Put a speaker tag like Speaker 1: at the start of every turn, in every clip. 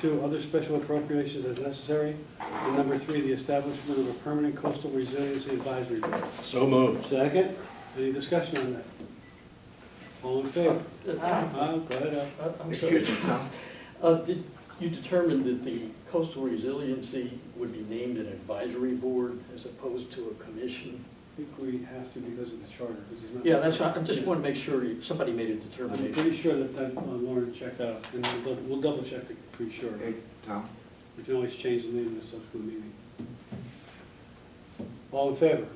Speaker 1: Two, other special appropriations as necessary. And number three, the establishment of a permanent coastal resiliency advisory board.
Speaker 2: So moved.
Speaker 1: Second, any discussion on that? All in favor?
Speaker 3: Uh, Tom,
Speaker 1: Uh, go ahead, Al.
Speaker 3: uh, I'm sorry, Tom. Uh, Did you determine that the coastal resiliency would be named an advisory board as opposed to a commission?
Speaker 1: I think we have to because of the charter, because he's not.
Speaker 3: Yeah, that's, right. I just want to make sure you- somebody made a
Speaker 1: I'm
Speaker 3: determination.
Speaker 1: pretty sure that that uh, Lauren checked out, and we'll dou- we'll double check it, pretty sure.
Speaker 4: Hey, Tom?
Speaker 1: We can always change the name in a subsequent meeting. All in favor?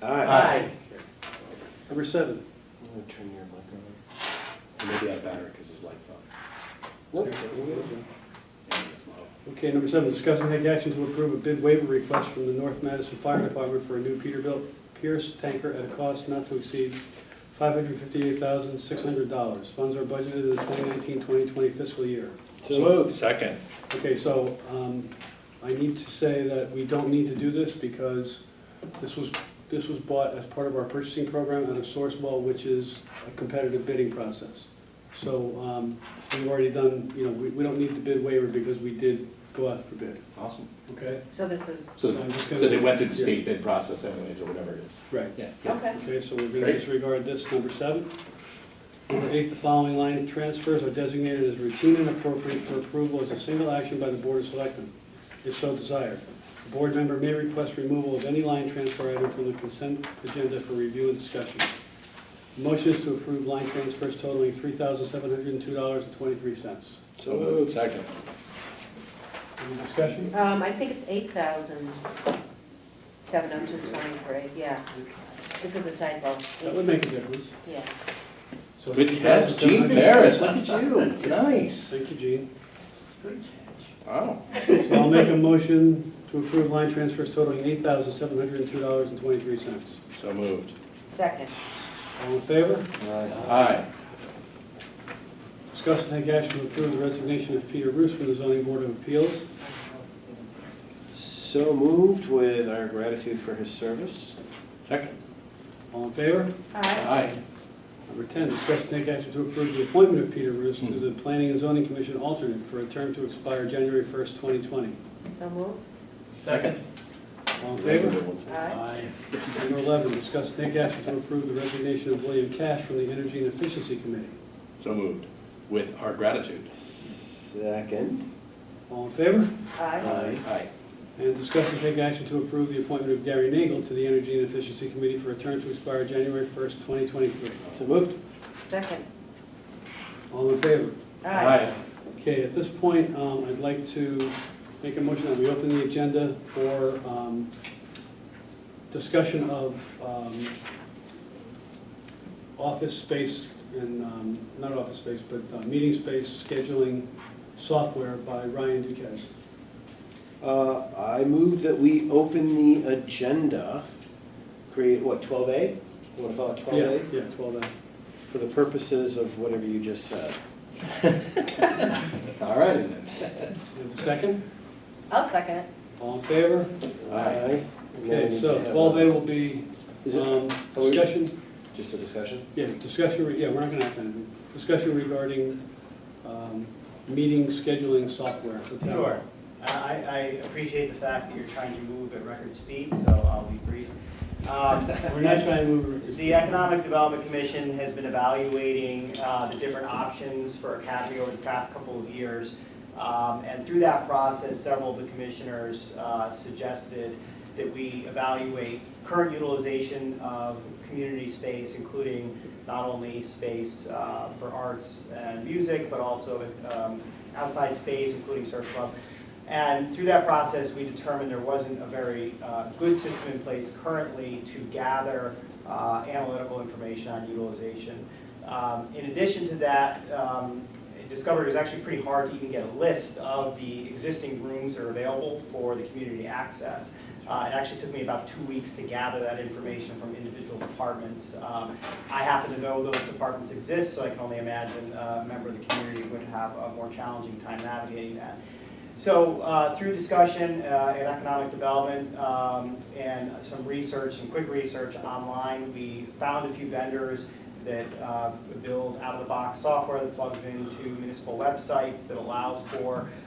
Speaker 3: Aye.
Speaker 1: Number seven.
Speaker 2: I'm gonna turn your mic on. Or Maybe I better, because his light's on. And it's not.
Speaker 1: Okay, number seven, discuss and take action to approve a bid waiver request from the North Madison Fire Department for a new Peterbilt Pierce tanker at a cost not to exceed $558,600. Funds are budgeted in the 2019-2020 fiscal year.
Speaker 2: So moved. Second.
Speaker 1: Okay, so um, I need to say that we don't need to do this because this was, this was bought as part of our purchasing program out of Sourcewell, which is a competitive bidding process. So um, we've already done, you know, we we don't need the bid waiver because we did go out for bid,
Speaker 5: Awesome.
Speaker 1: okay?
Speaker 6: So this is,
Speaker 5: So,
Speaker 1: I'm just gonna-
Speaker 5: so they went through the state bid process anyways, or whatever it is.
Speaker 1: Right.
Speaker 5: Yeah.
Speaker 6: okay.
Speaker 1: Okay, so we're going to
Speaker 5: Great.
Speaker 1: disregard this, number seven. Number eight, the following line transfers are designated as routine and appropriate for approval as a single action by the Board of Selectmen, if so desired. The board member may request removal of any line transfer item from the consent agenda for review and discussion. Motion is to approve line transfers totaling $3,702.23.
Speaker 2: So moved. Second.
Speaker 1: Any discussion?
Speaker 6: Um, I think it's eight thousand, seven oh two twenty-three, yeah. This is a typo,
Speaker 1: That would make a difference.
Speaker 6: yeah.
Speaker 1: So
Speaker 5: Good catch, Gene Ferris, look at you, nice.
Speaker 1: Thank you, Gene.
Speaker 3: Good catch.
Speaker 5: Wow.
Speaker 1: So I'll make a motion to approve line transfers totaling eight thousand seven hundred and two dollars and twenty-three cents.
Speaker 5: So moved.
Speaker 6: Second,
Speaker 1: All in favor?
Speaker 5: Aye.
Speaker 1: Discuss and take action to approve the resignation of Peter Roos from the zoning board of appeals.
Speaker 2: So moved with our gratitude for his service.
Speaker 5: Second.
Speaker 1: All in favor?
Speaker 6: aye.
Speaker 5: Aye.
Speaker 1: Number ten, discuss and take action to approve the appointment of Peter Roos to the planning and zoning commission alternate for a term to expire January first, twenty twenty.
Speaker 6: So move,
Speaker 3: Second.
Speaker 1: All in favor?
Speaker 6: aye.
Speaker 1: Number eleven, discuss and take action to approve the resignation of William Cash from the energy and efficiency committee.
Speaker 5: So moved. With our gratitude.
Speaker 2: Second.
Speaker 1: All in favor?
Speaker 6: Aye.
Speaker 5: Aye.
Speaker 1: And discuss and take action to approve the appointment of Gary Nagel to the Energy and Efficiency Committee for a term to expire January 1st, 2023.
Speaker 2: So moved.
Speaker 6: Second,
Speaker 1: All in favor?
Speaker 6: aye.
Speaker 1: Okay, at this point, um, I'd like to make a motion that we open the agenda for um, discussion of um, office space and, um, not office space, but uh, meeting space scheduling software by Ryan Duquesne.
Speaker 2: Uh, I move that we open the agenda, create, what, twelve A? What about twelve
Speaker 1: Yeah,
Speaker 2: A?
Speaker 1: Yeah, 12A.
Speaker 2: For the purposes of whatever you just said.
Speaker 5: All righty then.
Speaker 1: You have a second?
Speaker 6: I'll second it.
Speaker 1: All in favor?
Speaker 2: Aye. And then we
Speaker 1: Okay,
Speaker 2: need
Speaker 1: so
Speaker 2: to have
Speaker 1: twelve A
Speaker 2: a-
Speaker 1: will be,
Speaker 2: Is it,
Speaker 1: um,
Speaker 2: are we-
Speaker 1: discussion,
Speaker 2: just a discussion?
Speaker 1: yeah, discussion, re- yeah, we're not gonna have anything. Discussion regarding, um, meeting scheduling software. for town.
Speaker 7: Sure. I, I appreciate the fact that you're trying to move at record speed, so I'll be brief. Um,
Speaker 1: We're not trying to move.
Speaker 7: The Economic Development Commission has been evaluating uh, the different options for Academy over the past couple of years. Um, And through that process, several of the commissioners uh, suggested that we evaluate current utilization of community space, including not only space uh, for arts and music, but also um, outside space, including surf club. And through that process, we determined there wasn't a very uh, good system in place currently to gather uh, analytical information on utilization. Um, In addition to that, um, I discovered it was actually pretty hard to even get a list of the existing rooms that are available for the community access. Uh, It actually took me about two weeks to gather that information from individual departments. Um, I happen to know those departments exist, so I can only imagine uh, a member of the community would have a more challenging time navigating that. So uh, through discussion uh, and economic development um, and some research, some quick research online, we found a few vendors that uh, build out-of-the-box software that plugs into municipal websites, that allows for